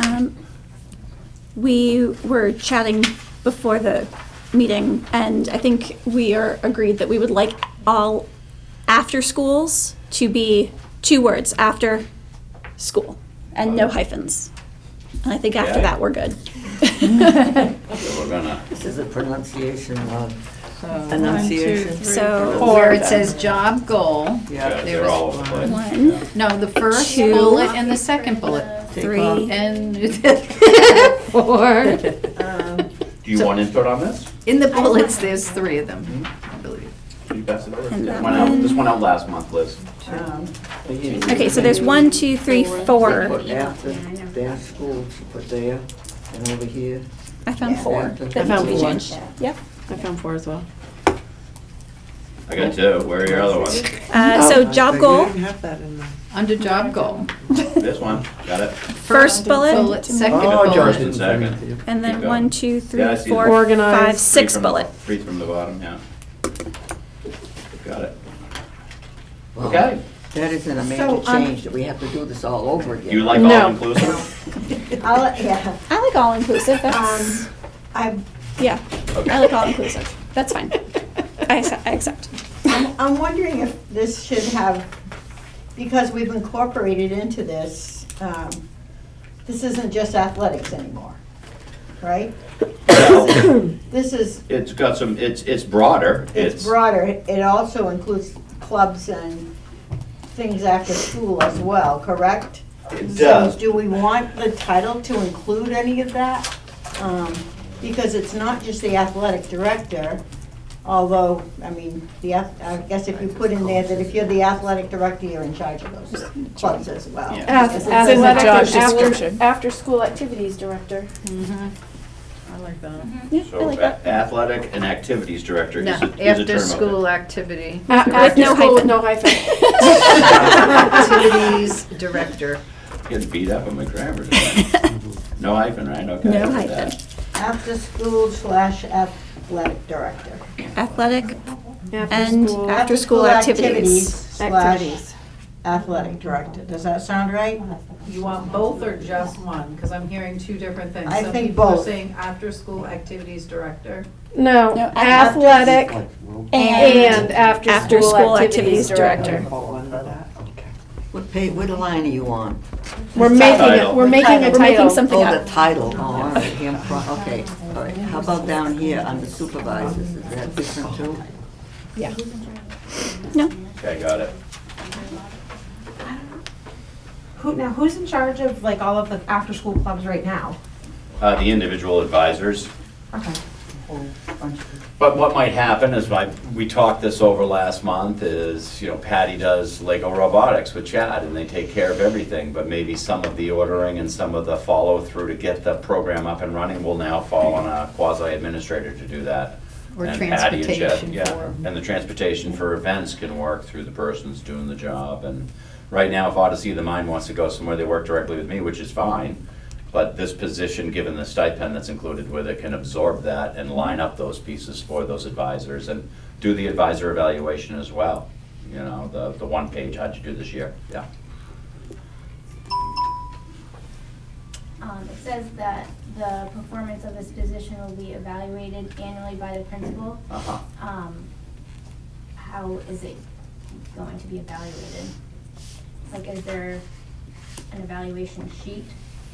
Um, We were chatting before the meeting, and I think we are agreed that we would like all after schools to be two words after school and no hyphens. And I think after Yeah. that, we're good. So we're gonna, This is a pronunciation of, Enunciation. So- Four, Or it says job goal. yeah, yeah, they're all over the place. One, No, the first Two. bullet and the second bullet. take off. three, And four. Do you want input on this? In the bullets, there's three of them, I believe. Can you pass it over? And that Went out- This went out last month, Liz. okay, so there's one, two, three, four. Put after, their school, she put there, and over here. I found four. after. I found four. Yep. I found four as well. I got two, where are your other ones? Oh. Uh, so job goal, Under job goal. This one, got it? first bullet, Bullet, second Oh, George bullet. didn't bring it to you. and then one, two, three, Yeah, I see four, that. Organized. five, Three six from- bullet. Three from the bottom, yeah. Got it. Oh. Okay, That is an amazing um, change, that we have to do this all over again. do you like No. all inclusive? I'll, yeah, I like all inclusive. Um, That's I'm, yeah. I like all inclusive. That's fine. I accept. I accept. I'm wondering if this should have, because we've incorporated into this, um, this isn't just athletics anymore, right? This is, It's got some, it's, it's broader, it's it's, broader, it also includes clubs and things after school as well, correct? it So does. do we want the title to include any of that? Um, Because it's not just the athletic director, although, I mean, the, ath- I guess if you put in there that if you're the athletic director, you're in charge of those clubs as well. Yeah. Because it's- in the Athletic job and after- description. After-school activities director. I like that. Yeah, I So like a- that. athletic and activities director is No, a, is a term. after of school it. uh, activity. With no hyphen. No hyphen. Activities director. Getting beat up on my grammar. No hyphen, right? Okay. No I did hyphen. that. After school slash athletic director. Athletic and After-school. after school activities. Slash athletic director. Does that sound right? You want both or just one? Because I'm hearing two different things. I Some think people are both. saying after-school activities director. No, No, athletic and after-school after-school activities activities director. What pay, what line are you on? We're making, it. Title. we're making a We're making title. something Oh, up. the title, oh, all right, him pro- okay, all right. How about down here, under supervisors, is that different too? No. Okay, got it. Who, now, who's in charge of like all of the after-school clubs right now? Uh, the individual advisors. Okay. But what might happen is, my, we talked this over last month, is, you know, Patty does Lego robotics with Chad, and they take care of everything, but maybe some of the ordering and some of the follow-through to get the program up and running will now fall on a quasi-administrator to do that. Or And Patty and Chad- transportation yeah, for- And the transportation for events can work through the persons doing the job, and right now, if Odyssey of the Mind wants to go somewhere, they work directly with me, which is fine. But this position, given the stipend that's included with it, can absorb that and line up those pieces for those advisors and do the advisor evaluation as well. You know, the, the one page, how'd you do this year? Yeah. Um, it says that the performance of this position will be evaluated annually by the principal. Uh-huh. Um, how is it going to be evaluated? Like, is there an evaluation sheet?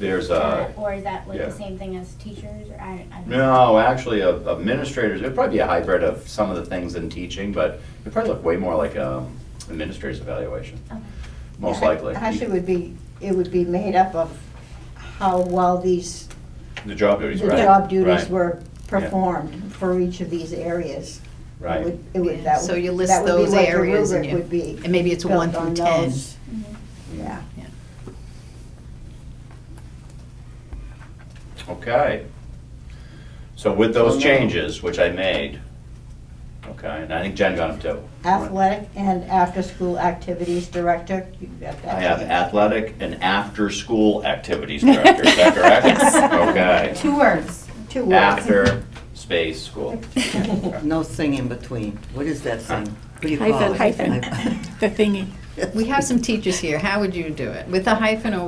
There's a, Or is that like yeah. the same thing as teachers, or I, I don't know? No, actually, a- administrators, it'd probably be a hybrid of some of the things in teaching, but it'd probably look way more like um, administrator's evaluation, Okay. most likely. Actually, it would be, it would be made up of how well these The job duties, the right? job duties right, were performed for each of these areas. It Right, would- It would, that So you would, list that would be those what the areas and rubric you- would be. and maybe it's a one built through on 10. those. Mm-hmm. Yeah. okay. So with those changes, which I made, okay, and I think Jen got them too. Athletic and after-school activities director, you got that. I have athletic and after-school activities director, is that correct? Yes. Two words. Two Okay, words. after space school. No thing in between, what is that thing? What do you call it? Hyphen. Hyphen. The thingy. We have some teachers here. How would you do it? With a hyphen or